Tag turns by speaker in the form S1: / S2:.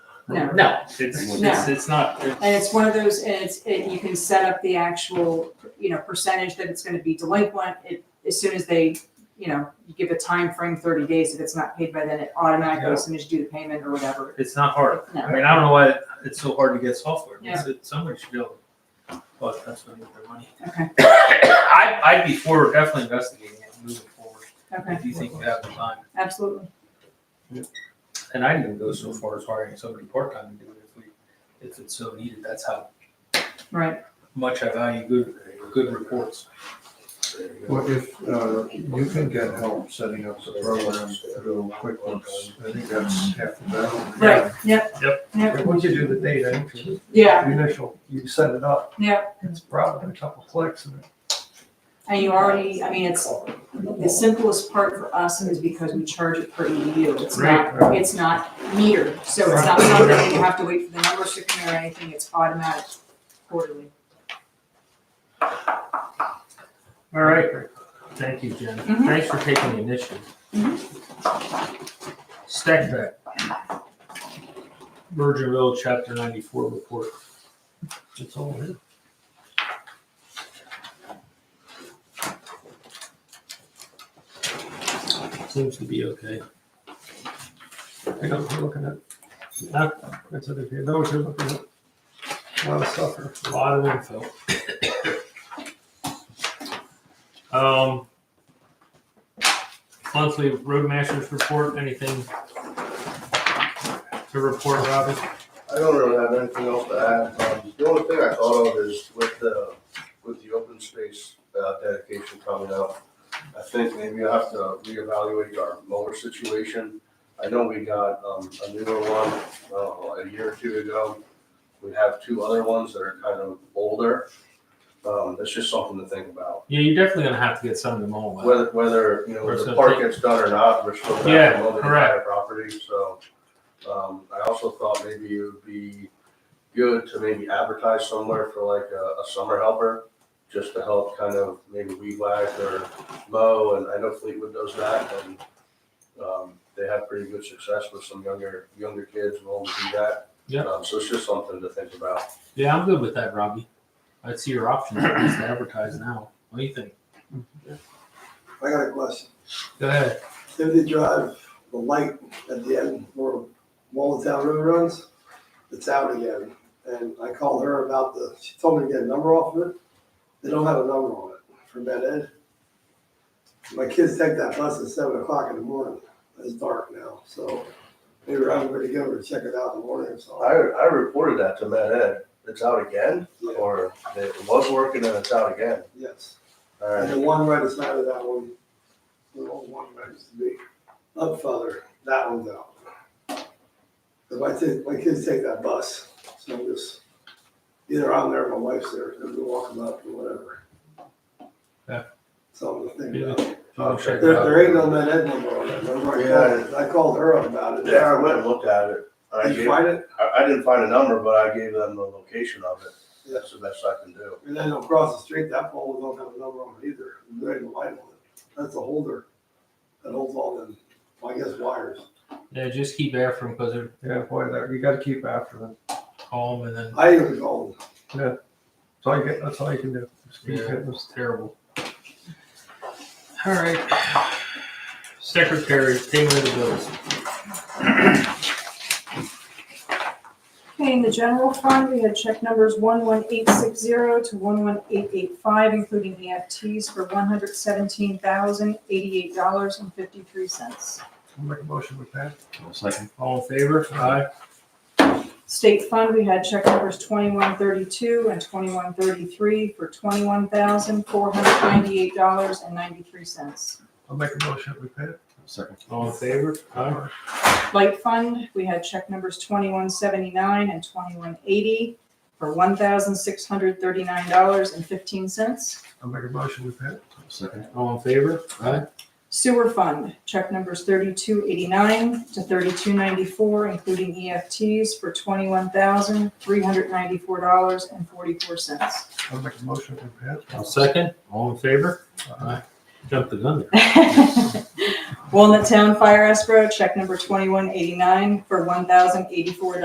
S1: No.
S2: No,
S3: It's,
S1: No.
S3: it's, it's not.
S1: And it's one of those, and it's, it, you can set up the actual, you know, percentage that it's gonna be delinquent. It, as soon as they, you know, you give a time frame, thirty days, if it's not paid by then, it automatically, as soon as you do the payment or whatever.
S3: It's not hard.
S1: No.
S3: I mean, I don't know why it's so hard to get software. It's, it, somebody should be able. to- But that's what I need their money.
S1: Okay.
S3: I, I'd be for definitely investigating it and moving forward
S1: Okay,
S3: if you think you have the time.
S1: absolutely.
S3: And I'd even go so far as hiring somebody part-time to do it if we, if it's so needed. That's how
S1: Right.
S3: much I value good, good reports.
S4: Well, if, uh, you can get help setting up the program through QuickBooks, I think that's half the battle.
S1: Right, yep.
S3: Yep.
S4: But Once you do the data entry,
S1: Yeah,
S4: the initial, you set it up.
S1: Yeah.
S4: It's probably a couple clicks and
S1: and you already, I mean, it's, the simplest part for us is because we charge it per EDU. It's not,
S4: Right.
S1: it's not metered, so it's not something that you have to wait for the numbers to come in or anything. It's automatic quarterly.
S2: all right.
S3: Thank you, Jen.
S1: Mhm.
S3: Thanks for taking the initiative. Stack that. Virginville Chapter ninety-four report. That's all it is. Seems to be okay.
S4: I know what you're looking at. Yeah, that's what it is. I know what you're looking at. A lot of stuff here.
S3: A lot of info. Um. Monthly Roadmasters report, anything to report, Robin?
S5: I don't really have anything else to add. Um, The only thing I thought of is with the, with the open space uh, dedication coming up, I think maybe I have to reevaluate our mower situation. I know we got um, a newer one uh, a year or two ago. We have two other ones that are kind of older. Um, That's just something to think about.
S2: Yeah, you're definitely gonna have to get some of them all out.
S5: Whether, whether, you know,
S2: Or
S5: whether the
S2: something.
S5: park gets done or not, we're still gonna
S2: Yeah,
S5: have to mow the
S2: correct.
S5: entire property, so. Um, I also thought maybe it would be good to maybe advertise somewhere for like a, a summer helper, just to help kind of maybe weed whack or mow, and I know Fleetwood does that, and, um, they have pretty good success with some younger, younger kids willing to do that.
S2: Yeah.
S5: Um, So it's just something to think about.
S2: Yeah, I'm good with that, Robbie. I see your options, at least to advertise now. What do you think?
S6: I got a question.
S2: Go ahead.
S6: Activity Drive, the light at the end where Town Road runs, it's out again. And I called her about the, she told me to get a number off of it. They don't have a number on it for Med Ed. My kids take that bus at seven o'clock in the morning. It's dark now, so maybe I'm gonna go to check it out in the morning or
S5: I,
S6: something.
S5: I reported that to Met Ed, it's out again,
S6: Yeah.
S5: or it was working and it's out again.
S6: Yes.
S5: All
S6: And
S5: right,
S6: the one right aside of that one, the old one that used to be up further, that one's out. 'Cause my kids, my kids take that bus, so I'm just, either I'm there, or my wife's there, and we're walking up or whatever.
S2: Yeah.
S6: So I'm thinking
S2: Yeah.
S6: about, there,
S2: I'll check it out.
S6: there ain't no med ed number on that, number I called, I called her up about it.
S5: yeah, I went and looked at it. I
S6: Did you
S5: gave-
S6: find it?
S5: I, I didn't find a number, but I gave them the location of it.
S6: Yeah.
S5: That's the best I can do.
S6: And then across the street, that pole don't have a number on it either, there ain't a light on it, that's a holder, that holds all them, I guess wires.
S2: Yeah, just keep after them because they're
S4: Yeah, boy, that, you gotta keep after them.
S2: calm and then
S6: I even called
S4: That's all you get, that's all you can do. Just keep
S2: Yeah.
S4: hitting them.
S2: it's terrible. All right. Secretary, payment of the bills.
S1: Okay, in the general fund, we had check numbers one one eight six zero to one one eight eight five, including EFTs for one hundred seventeen thousand eighty-eight dollars and fifty-three cents.
S4: I'll Make a motion with that.
S2: All in favor? Aye.
S1: State fund, we had check numbers twenty-one thirty-two and twenty-one thirty-three for twenty-one thousand four hundred ninety-eight dollars and ninety-three cents.
S4: I'll make a motion with that.
S2: All in favor? Aye.
S1: Light fund, we had check numbers twenty-one seventy-nine and twenty-one eighty for one thousand six hundred thirty-nine dollars and fifteen cents.
S4: I'll make a motion with that.
S2: All in favor? Aye.
S1: Sewer fund, check numbers thirty-two eighty-nine to thirty-two ninety-four, including EFTs for twenty-one thousand, three hundred ninety-four dollars and forty-four cents.
S4: I'll make a motion with that.
S2: I'll second. All in favor? Aye. Jump the gun there.
S1: Walnut Town Fire Escrow, check number twenty-one eighty-nine for one thousand eighty-four